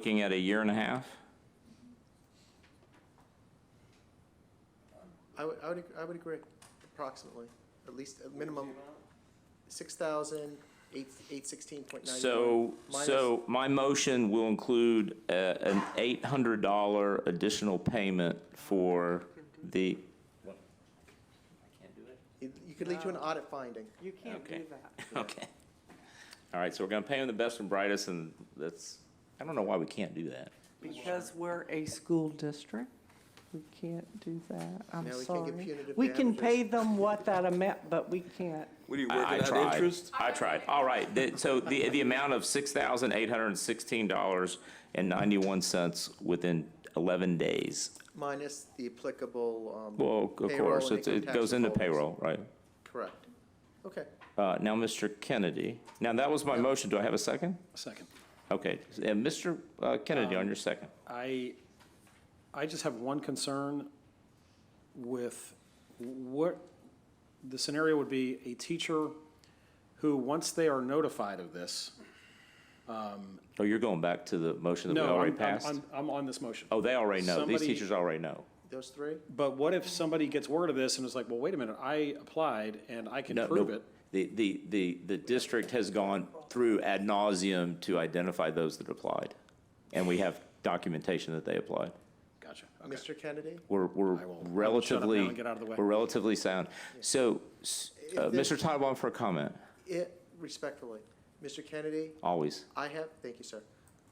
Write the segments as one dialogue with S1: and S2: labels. S1: Looking at a year and a half?
S2: I would, I would, ag- I would agree, approximately, at least, a minimum, six thousand, eight, eight sixteen point nine.
S1: So,
S2: Minus-
S1: so my motion will include uh, an $800 additional payment for the,
S2: You you could lead to an audit finding.
S3: You can't
S1: Okay.
S3: do that.
S1: okay. All right, so we're going to pay them the best and brightest, and that's, I don't know why we can't do that.
S3: Because we're a school district, we can't do that. I'm
S2: No, we can't give
S3: sorry.
S2: punitive
S3: We can
S2: damages.
S3: pay them what that amount, but we can't.
S4: What are you
S1: I- I
S4: working
S1: tried.
S4: out interest?
S1: I tried. All right, the- so the, the amount of $6,816.91 within 11 days.
S2: Minus the applicable, um.
S1: Well, of
S2: payroll
S1: course,
S2: and
S1: it's-
S2: income
S1: it
S2: tax
S1: goes into
S2: withholdings.
S1: payroll, right?
S2: Correct. Okay,
S1: Uh, Now, Mr. Kennedy, now that was my motion, do I have a second?
S5: Second.
S1: Okay, and Mr. uh, Kennedy
S5: Um,
S1: on your second.
S5: I, I just have one concern with what, the scenario would be a teacher who, once they are notified of this.
S1: Oh, you're going back to the motion that
S5: No,
S1: we
S5: I'm-
S1: already
S5: I'm-
S1: passed?
S5: I'm, I'm on this motion.
S1: Oh, they already know, these
S5: Somebody-
S1: teachers already know.
S2: those three?
S5: But what if somebody gets word of this and is like, well, wait a minute, I applied and I can
S1: No,
S5: prove
S1: no,
S5: it?
S1: The, the, the, the district has gone through ad nauseum to identify those that applied, and we have documentation that they applied.
S5: Gotcha, okay.
S2: Mr. Kennedy?
S1: We're, we're
S5: I will- I will shut up now
S1: relatively,
S5: and get out of the way.
S1: we're relatively sound. So, s- uh,
S2: If there's-
S1: Mr. Titlebaum for a comment,
S2: It, respectfully, Mr. Kennedy,
S1: always.
S2: I have, thank you, sir.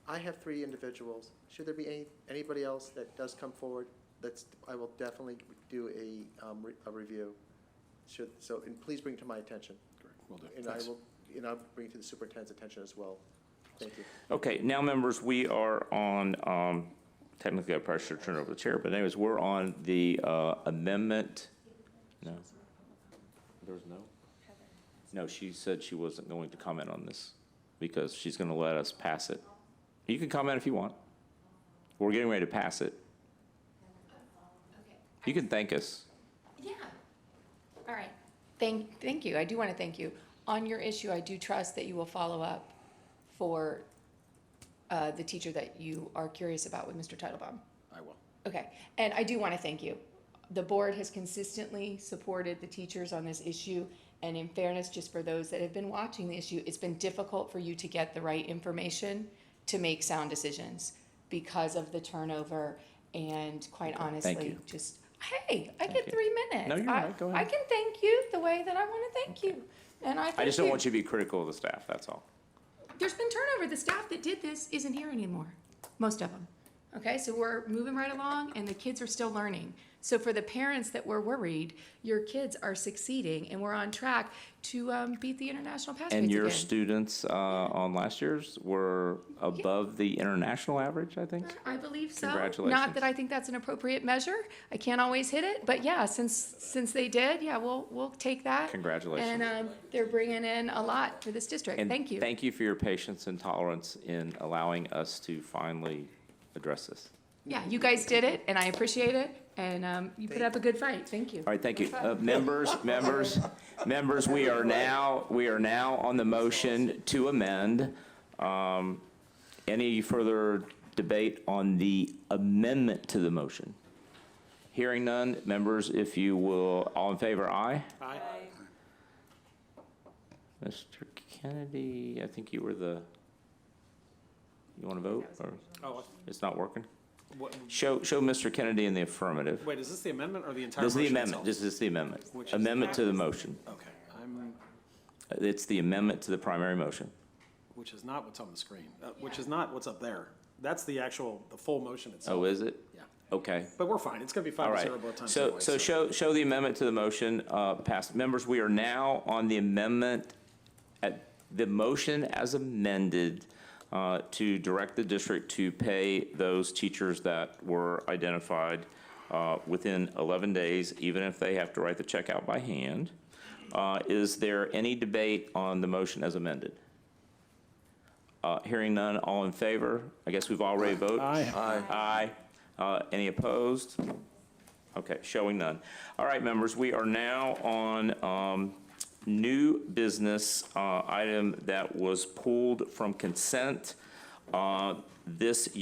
S2: I have three individuals. Should there be any, anybody else that does come forward, that's, I will definitely do a, um, re- a review. Should, so, and please bring it to my attention.
S5: Great, will do.
S2: And I
S5: Thanks.
S2: will, and I'll bring it to the superintendent's attention as well. Thank you.
S1: Okay, now, members, we are on, um, technically, I probably should turn over the chair, but anyways, we're on the uh, amendment. No. There was no? No, she said she wasn't going to comment on this because she's going to let us pass it. You can comment if you want. We're getting ready to pass it. You can thank us.
S6: Yeah. All right. Thank, thank you. I do want to thank you. On your issue, I do trust that you will follow up for uh, the teacher that you are curious about with Mr. Titlebaum.
S5: I will.
S6: Okay, and I do want to thank you. The board has consistently supported the teachers on this issue, and in fairness, just for those that have been watching the issue, it's been difficult for you to get the right information to make sound decisions because of the turnover, and quite honestly,
S1: you.
S6: just, hey, I
S1: Thank
S6: get
S1: you.
S6: three minutes.
S1: No, you're
S6: I-
S1: right. Go
S6: I
S1: ahead.
S6: can thank you the way that I want to thank you, and I
S1: I just
S6: thank
S1: don't want
S6: you.
S1: you to be critical of the staff, that's all.
S6: There's been turnover. The staff that did this isn't here anymore, most of them. Okay, so we're moving right along and the kids are still learning. So for the parents that were worried, your kids are succeeding and we're on track to um, beat the international pass rates
S1: And your
S6: again.
S1: students uh, on last year's were above the international average, I think?
S6: I believe so.
S1: Congratulations.
S6: Not that I think that's an appropriate measure. I can't always hit it, but yeah, since since they did, yeah, we'll we'll take that.
S1: Congratulations.
S6: And um, they're bringing in a lot for this district.
S1: And
S6: Thank you.
S1: Thank you for your patience and tolerance in allowing us to finally address this.
S6: yeah, you guys did it, and I appreciate it. And um, you put up a good fight. Thank you.
S1: All right, thank you. Uh, Members, members, members, we are now, we are now on the motion to amend. Um, Any further debate on the amendment to the motion? Hearing none, members, if you will, all in favor, aye?
S5: Aye.
S1: Mr. Kennedy, I think you were the, you want to vote, or
S5: Oh,
S1: it's not working?
S5: what,
S1: Show, show Mr. Kennedy in the affirmative.
S5: wait, is this the amendment or the entire
S1: This is
S5: motion
S1: the amendment,
S5: itself?
S1: this is the amendment.
S5: Which is-
S1: Amendment to the motion.
S5: Okay, I'm,
S1: It's the amendment to the primary motion.
S5: which is not what's on the screen, uh, which is not what's up there. That's the actual, the full motion itself.
S1: Oh, is it?
S5: Yeah.
S1: Okay,
S5: But we're fine. It's going to be
S1: all
S5: five to
S1: right.
S5: zero both times
S1: So,
S5: anyway.
S1: so show, show the amendment to the motion uh, passed. Members, we are now on the amendment, at the motion as amended uh, to direct the district to pay those teachers that were identified uh, within 11 days, even if they have to write the check out by hand. Uh, Is there any debate on the motion as amended? Uh, Hearing none, all in favor? I guess we've already voted.
S5: Aye.
S1: Aye. Uh, Any opposed? Okay, showing none. All right, members, we are now on um, new business uh, item that was pulled from consent. Uh, This